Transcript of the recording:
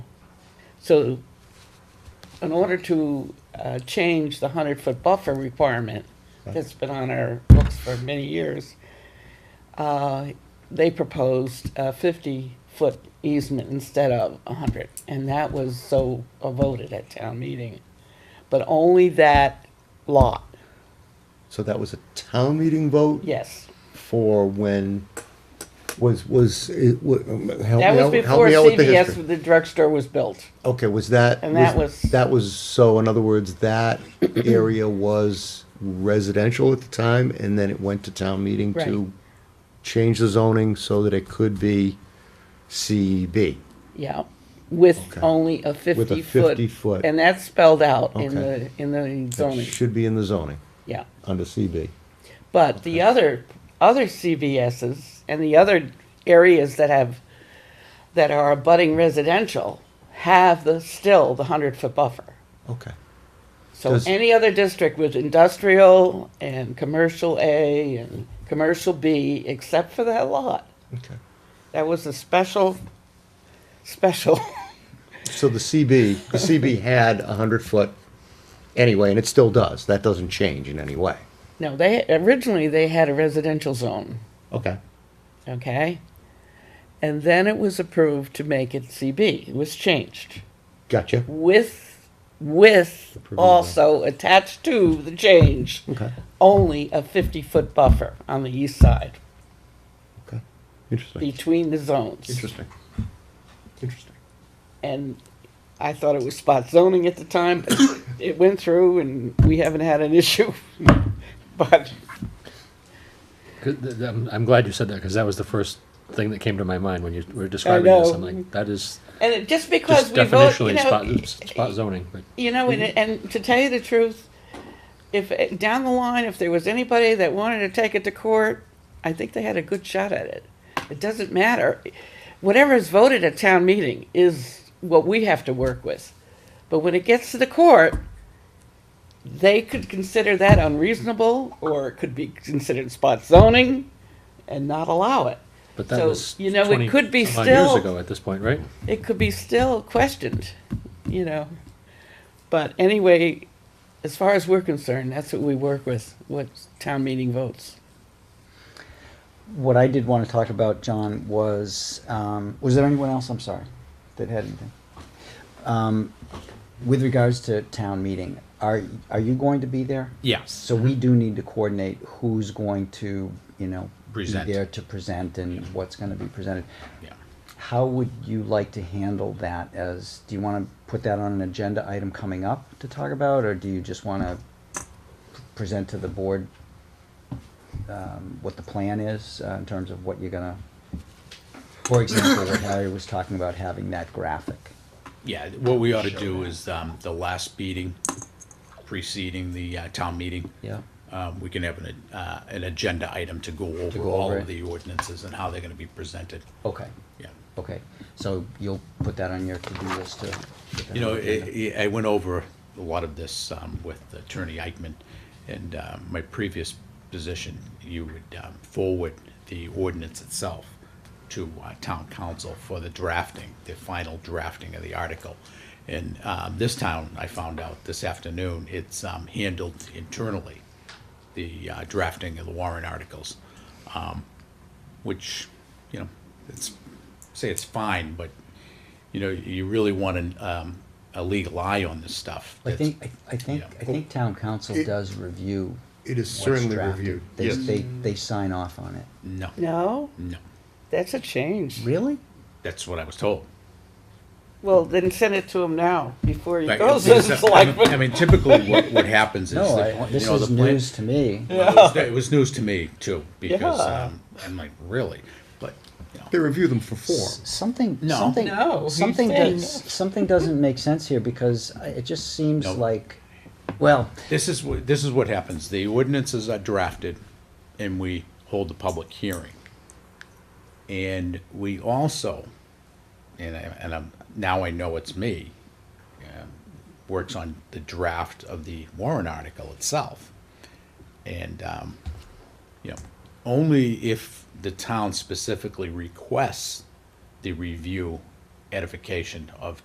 So in order to uh, change the 100-foot buffer requirement that's been on our books for many years, uh, they proposed a 50-foot easement instead of 100. And that was so voted at town meeting. But only that lot, So that was a town meeting vote yes. for when was was it, wa- um, help That was me out, help before me out with the history. CVS, with the drugstore was built. Okay, was that And that was- that was so in other words that area was residential at the time and then it went to town meeting Right. to change the zoning so that it could be CB. Yeah, with Okay. only a fifty foot. With a 50 foot. And that's spelled out in the, Okay. in the That zoning, should be in the zoning yeah. under CB. But the other, other CVSs and the other areas that have, that are abutting residential have the, still the hundred foot buffer. Okay. So Does- any other district with industrial and commercial A and commercial B, except for that lot. Okay. That was a special, special, So the CB, the CB had a hundred foot anyway, and it still does. That doesn't change in any way. no, they, originally they had a residential zone. Okay. okay? And then it was approved to make it CB. It was changed Gotcha. with, with Approval. also attached to the change, Okay. only a 50-foot buffer on the east side Okay. Interesting. between the zones. Interesting. Interesting. And I thought it was spot zoning at the time, but it went through and we haven't had an issue. But, 'Cause th- th- I'm, I'm glad you said that because that was the first thing that came to my mind when you were describing know. this. I'm like, that is and it- just because just we vote, definitionally you know, spot, spot zoning. But You know, and, and to tell you the truth, if eh, down the line, if there was anybody that wanted to take it to court, I think they had a good shot at it. It doesn't matter. Whatever is voted at town meeting is what we have to work with. But when it gets to the court, they could consider that unreasonable or it could be considered spot zoning and not allow it. but that So, was you know, it 20 could be some odd still- years ago at this point, right? it could be still questioned, you know. But anyway, as far as we're concerned, that's what we work with, what town meeting votes. What I did want to talk about, John, was, um, was there anyone else, I'm sorry, that had anything? Um, with regards to town meeting, are, are you going to be there? Yes. So we do need to coordinate who's going to, you know, Present. be there to present and what's going to be presented. Yeah. How would you like to handle that as, do you want to put that on an agenda item coming up to talk about, or do you just want to present to the board um, what the plan is uh, in terms of what you're gonna, for example, what Harry was talking about, having that graphic. Yeah, what we ought to do is, um, the last meeting preceding the, uh, town meeting. Yeah. Um, we can have an, uh, an agenda item to go over go all over of it. the ordinances and how they're gonna be presented, Okay, yeah. okay. So you'll put that on your to-do list to. You know, I, I- I went over a lot of this, um, with Attorney Eichman, and, uh, my previous position, you would, um, forward the ordinance itself to, uh, town council for the drafting, the final drafting of the article. And, um, this town, I found out this afternoon, it's, um, handled internally, the, uh, drafting of the warrant articles which, you know, it's, say it's fine, but, you know, you really want an, um, a legal eye on this stuff. I think, I- I think, Yeah. I think town council does review. It is what's certainly drafted. reviewed. They, Yes. they, they sign off on it. No, No, no, that's a change. Really? that's what I was told. Well, then send it to him now before he Like, goes to it's- the I selectmen. mean, typically what, what happens is. No, the I- pla- this you know, is the plan- news to me. It was- it was news to me too, because, Yeah. um, I'm like, really? But, you know, They review them for form. Something, No. something, No, he's something, saying does, something doesn't make sense here because I- it just seems No. like, well, This is, wh- this is what happens. The ordinances are drafted and we hold the public hearing. And we also, and I, and I'm, now I know it's me, um, works on the draft of the warrant article itself. And, um, you know, only if the town specifically requests the review edification of